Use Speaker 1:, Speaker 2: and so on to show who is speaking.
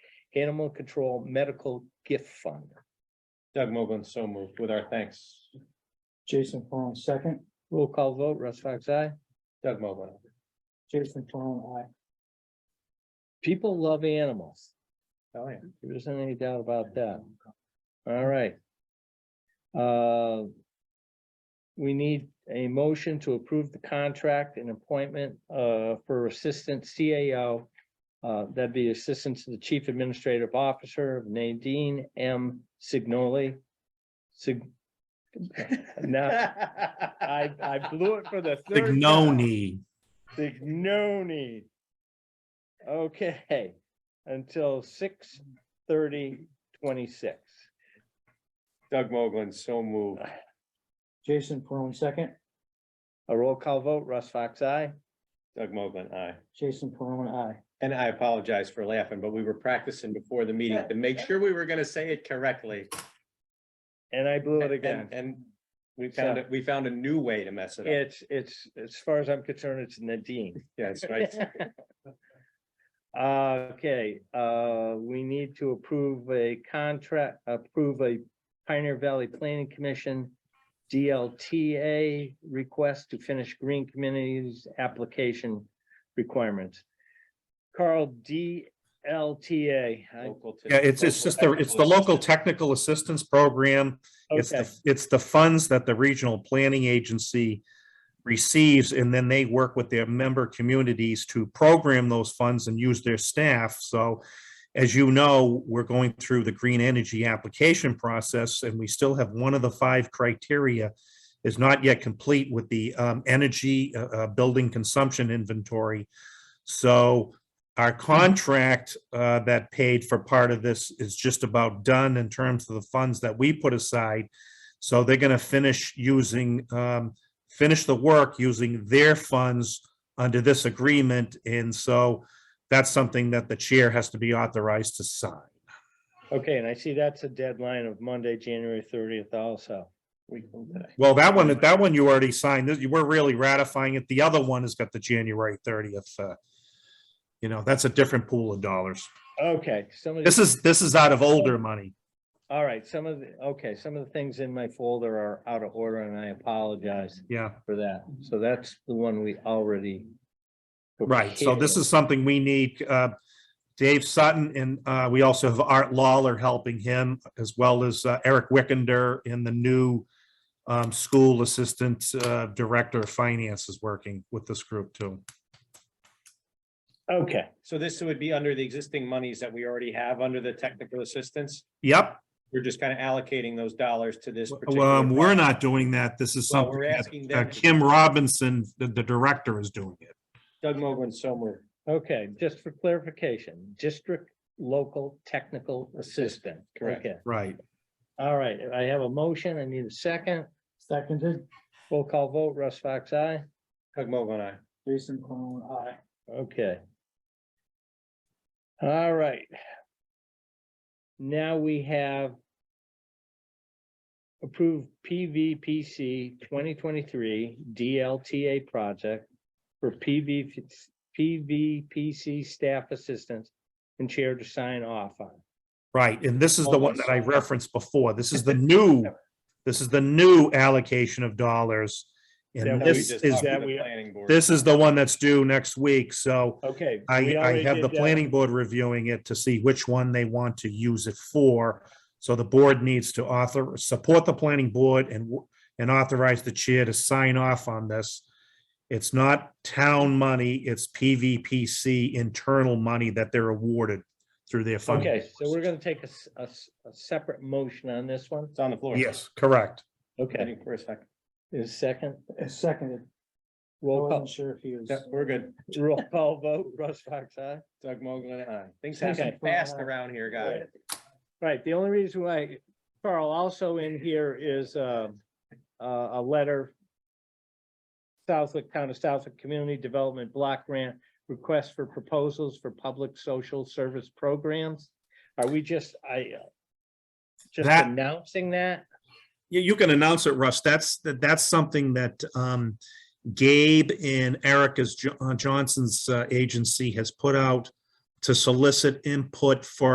Speaker 1: Animal Control Medical Gift Fund.
Speaker 2: Doug Mogul, so moved with our thanks.
Speaker 3: Jason Peron, second.
Speaker 1: Roll call vote, Russ Fox, aye.
Speaker 2: Doug Mogul.
Speaker 3: Jason Peron,
Speaker 1: People love animals.
Speaker 2: Oh, yeah.
Speaker 1: There isn't any doubt about that. All right. Uh, We need a motion to approve the contract and appointment uh, for Assistant CAO. uh, That'd be Assistant to the Chief Administrative Officer Nadine M. Signoli. Sig. Now, I, I blew it for the third. time.
Speaker 4: Signoni.
Speaker 1: Signoni. Okay, until six thirty twenty-six. Uh,
Speaker 2: Doug Mogul, so moved.
Speaker 3: Jason Peron, second.
Speaker 1: A roll call vote, Russ Fox, aye.
Speaker 2: Doug Mogul, aye.
Speaker 3: Jason Peron, I.
Speaker 2: And I apologize for laughing, but we were practicing before the meeting to make sure we were gonna say it correctly.
Speaker 1: And I blew it again.
Speaker 2: And, and we found it, we found a new way to mess it up.
Speaker 1: It's, it's, as far as I'm concerned, it's Nadine.
Speaker 2: Yes, right.
Speaker 1: Okay, uh, we need to approve a contract, approve a Pioneer Valley Planning Commission DLTA request to finish green communities application requirements. Carl, DLTA. I-
Speaker 2: Local to-
Speaker 4: Yeah, it's, it's
Speaker 2: local
Speaker 4: just the, it's the
Speaker 2: technical
Speaker 4: local
Speaker 2: assistance.
Speaker 4: technical assistance program. It's,
Speaker 1: Okay,
Speaker 4: the it's the funds that the regional planning agency receives, and then they work with their member communities to program those funds and use their staff. So as you know, we're going through the green energy application process, and we still have one of the five criteria is not yet complete with the um, energy uh, uh, building consumption inventory. So our contract uh, that paid for part of this is just about done in terms of the funds that we put aside. So they're going to finish using, um, finish the work using their funds under this agreement. And so that's something that the chair has to be authorized to sign.
Speaker 1: okay, and I see that's a deadline of Monday, January thirtieth also.
Speaker 2: We can do that.
Speaker 4: Well, that one, that one you already signed. This- You were really ratifying it. The other one has got the January 30th. uh, You know, that's a different pool of dollars.
Speaker 1: Okay, some of
Speaker 4: This
Speaker 1: the,
Speaker 4: is, this is out of older money.
Speaker 1: all right, some of the, okay, some of the things in my folder are out of order and I apologize.
Speaker 4: Yeah,
Speaker 1: for that. So that's the one we already.
Speaker 4: right. So this
Speaker 1: prepared.
Speaker 4: is something we need, uh, Dave Sutton and, uh, we also have Art Lawler helping him as well as uh, Eric Wickender in the new, um, school assistant, uh, director of finance is working with this group too.
Speaker 1: Okay,
Speaker 2: So this would be under the existing monies that we already have under the technical assistance.
Speaker 4: Yep,
Speaker 2: We're just kind of allocating those dollars to this.
Speaker 4: well,
Speaker 2: particular
Speaker 4: um, we're
Speaker 2: project.
Speaker 4: not doing that. This is
Speaker 2: Well, we're
Speaker 4: something
Speaker 2: asking
Speaker 4: that, uh,
Speaker 2: them to-
Speaker 4: Kim Robinson, the, the director is doing it.
Speaker 2: Doug Mogul, so moved.
Speaker 1: okay, just for clarification, district local technical assistant.
Speaker 2: Correct.
Speaker 1: Okay.
Speaker 4: Right.
Speaker 1: All right, I have a motion. I need a second.
Speaker 3: Seconded,
Speaker 1: Roll call vote, Russ Fox, aye.
Speaker 2: Doug Mogul, aye.
Speaker 3: Jason Peron, I.
Speaker 1: Okay. All right. Now we have approved PVPC twenty twenty-three DLTA project for PV, PVPC staff assistance and chair to sign off on.
Speaker 4: Right, and this is the
Speaker 2: Hold
Speaker 4: one
Speaker 2: on.
Speaker 4: that I referenced before. This is the new, this is the new allocation of dollars.
Speaker 1: That
Speaker 4: And
Speaker 1: we
Speaker 2: That we
Speaker 4: this
Speaker 2: just
Speaker 4: is,
Speaker 2: talked to
Speaker 1: that
Speaker 2: the
Speaker 1: we-
Speaker 2: planning board.
Speaker 4: this is the one that's due next week, so
Speaker 1: Okay.
Speaker 4: I,
Speaker 1: we
Speaker 4: I
Speaker 1: already
Speaker 4: have the
Speaker 1: did that.
Speaker 4: planning board reviewing it to see which one they want to use it for. So the board needs to author, support the planning board and, w- and authorize the chair to sign off on this. It's not town money, it's PVPC internal money that they're awarded through their fund.
Speaker 1: Okay, so we're gonna take a, s- a s- a separate motion on this one.
Speaker 2: It's on the floor.
Speaker 4: Yes, correct.
Speaker 1: Okay,
Speaker 2: Waiting for a second.
Speaker 1: is second,
Speaker 3: Seconded, I
Speaker 1: roll call,
Speaker 3: wasn't sure if he was.
Speaker 2: Yeah, we're good.
Speaker 1: roll call vote, Russ Fox, aye.
Speaker 2: Doug Mogul, aye. Things happen
Speaker 1: Okay.
Speaker 2: fast around here, guys.
Speaker 1: Right, the only reason why, Carl, also in here is uh, a, a letter. Southwick, Town of Southwick Community Development Block Grant, request for proposals for public social service programs. Are we just, I uh, just
Speaker 4: That-
Speaker 1: announcing that?
Speaker 4: You, you can announce it, Russ. That's, that, that's something that, um, Gabe and Erica's, Jo- uh, Johnson's, uh, agency has put out to solicit input for